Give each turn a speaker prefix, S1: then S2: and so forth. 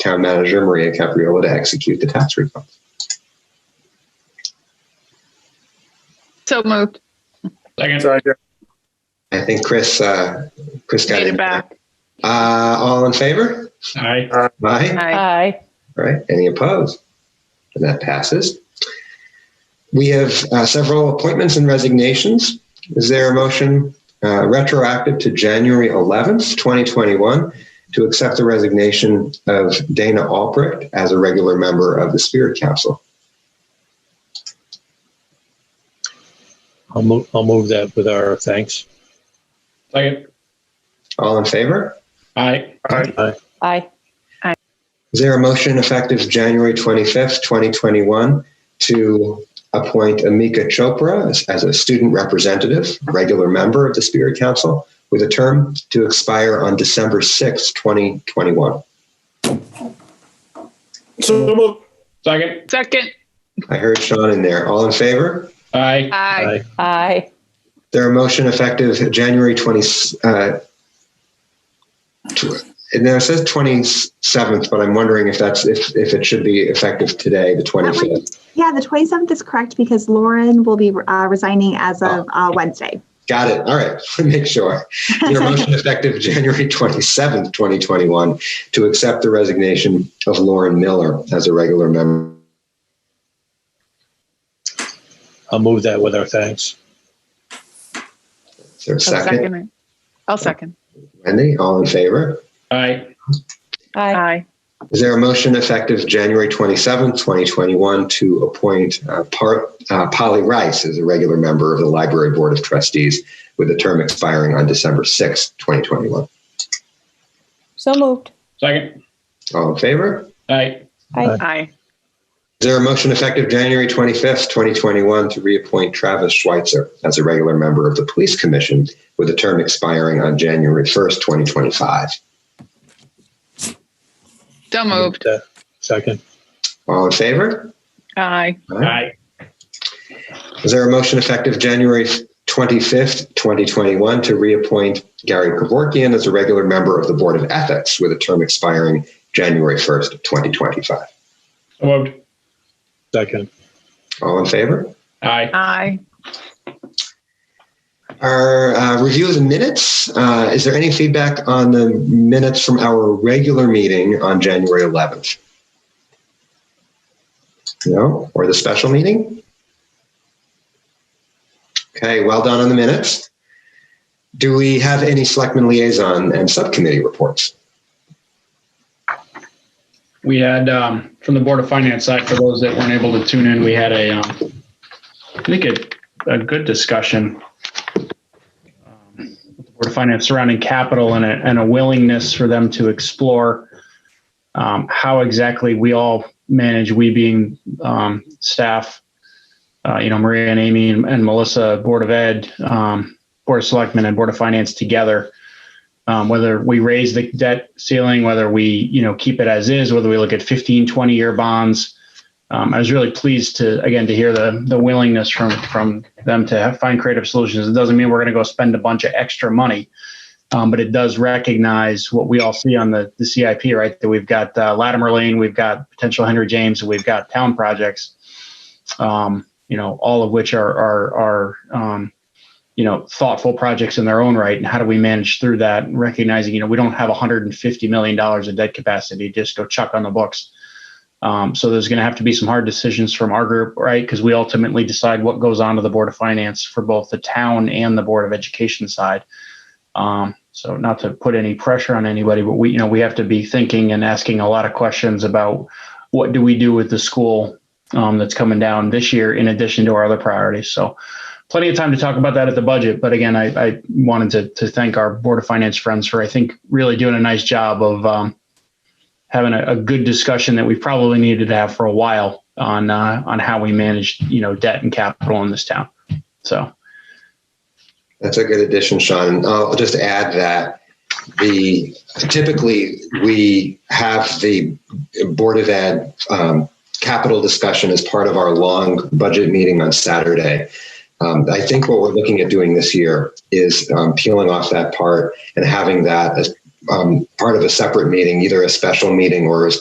S1: Town Manager Maria Capriola to execute the tax refund.
S2: So moved.
S3: Second.
S4: Second.
S1: I think Chris, uh, Chris got
S2: Made
S1: it
S2: it back.
S1: Uh, all in favor?
S3: Aye.
S1: Aye.
S2: Aye.
S5: Aye.
S1: All right, any opposed? And that passes. We have uh, several appointments and resignations. Is there a motion uh, retroactive to January 11th, 2021, to accept the resignation of Dana Albrecht as a regular member of the Spirit Council?
S6: I'll move, I'll move that with our thanks.
S3: Second.
S1: All in favor?
S3: Aye.
S6: Aye.
S5: Aye.
S1: Is there a motion effective January 25th, 2021, to appoint Amika Chopra as, as a student representative, regular member of the Spirit Council, with a term to expire on December 6th, 2021?
S4: So moved.
S3: Second.
S2: Second.
S1: I heard Sean in there. All in favor?
S3: Aye.
S2: Aye.
S6: Aye.
S5: Aye.
S1: There a motion effective January 20, uh, tw- and there it says 27th, but I'm wondering if that's, if, if it should be effective today, the 25th.
S7: Yeah, the 27th is correct because Lauren will be uh, resigning as of uh, Wednesday.
S1: Got it. All right. Make sure. Your motion effective January 27th, 2021, to accept the resignation of Lauren Miller as a regular member.
S6: I'll move that with our thanks.
S1: Is there a
S2: I'll
S1: second?
S2: it. I'll second.
S1: Wendy, all in favor?
S3: Aye.
S5: Aye.
S2: Aye.
S1: Is there a motion effective January 27th, 2021, to appoint uh, Par- uh, Polly Rice as a regular member of the Library Board of Trustees with a term expiring on December 6th, 2021?
S5: So moved.
S3: Second.
S1: All in favor?
S3: Aye.
S5: Aye.
S2: Aye.
S1: Is there a motion effective January 25th, 2021 to reappoint Travis Schweitzer as a regular member of the Police Commission with a term expiring on January 1st, 2025?
S2: So moved.
S6: Move that. Second.
S1: All in favor?
S2: Aye.
S3: Aye.
S1: Is there a motion effective January 25th, 2021 to reappoint Gary Kevorkian as a regular member of the Board of Ethics with a term expiring January 1st, 2025?
S3: So moved.
S6: Second.
S1: All in favor?
S3: Aye.
S2: Aye.
S1: Our uh, review of the minutes. Uh, is there any feedback on the minutes from our regular meeting on January 11th? No, or the special meeting? Okay, well done on the minutes. Do we have any selectmen liaison and subcommittee reports?
S3: We had, um, from the Board of Finance side, for those that weren't able to tune in, we had a, um, I think a, a good discussion. um, with the Board of Finance surrounding capital and a, and a willingness for them to explore um, how exactly we all manage, we being, um, staff, uh, you know, Maria and Amy and, and Melissa, Board of Ed, um, Board of Selectmen and Board of Finance together. um, whether we raise the debt ceiling, whether we you know keep it as is, whether we look at 15, 20 year bonds. Um, I was really pleased to again to hear the the willingness from from them to have, find creative solutions. It doesn't mean we're going to go spend a bunch of extra money, um, but it does recognize what we all see on the the CIP, right? That we've got uh, Latimer Lane, we've got potential Henry James, and we've got town projects. Um, you know, all of which are are are um, you know thoughtful projects in their own right and how do we manage through that and recognizing you know we don't have 150 million dollars of debt capacity to just go chuck on the books um, so there's going to have to be some hard decisions from our group right because we ultimately decide what goes on to the board of finance for both the town and the board of education side um, so not to put any pressure on anybody but we you know we have to be thinking and asking a lot of questions about what do we do with the school um, that's coming down this year in addition to our other priorities so plenty of time to talk about that at the budget. But again, I, I wanted to, to thank our Board of Finance friends for, I think, really doing a nice job of um, having a, a good discussion that we probably needed to have for a while on uh, on how we manage, you know, debt and capital in this town. So
S1: That's a good addition, Sean. And I'll just add that the typically we have the Board of Ed um, capital discussion as part of our long budget meeting on Saturday. Um, I think what we're looking at doing this year is um, peeling off that part and having that as um, part of a separate meeting, either a special meeting or as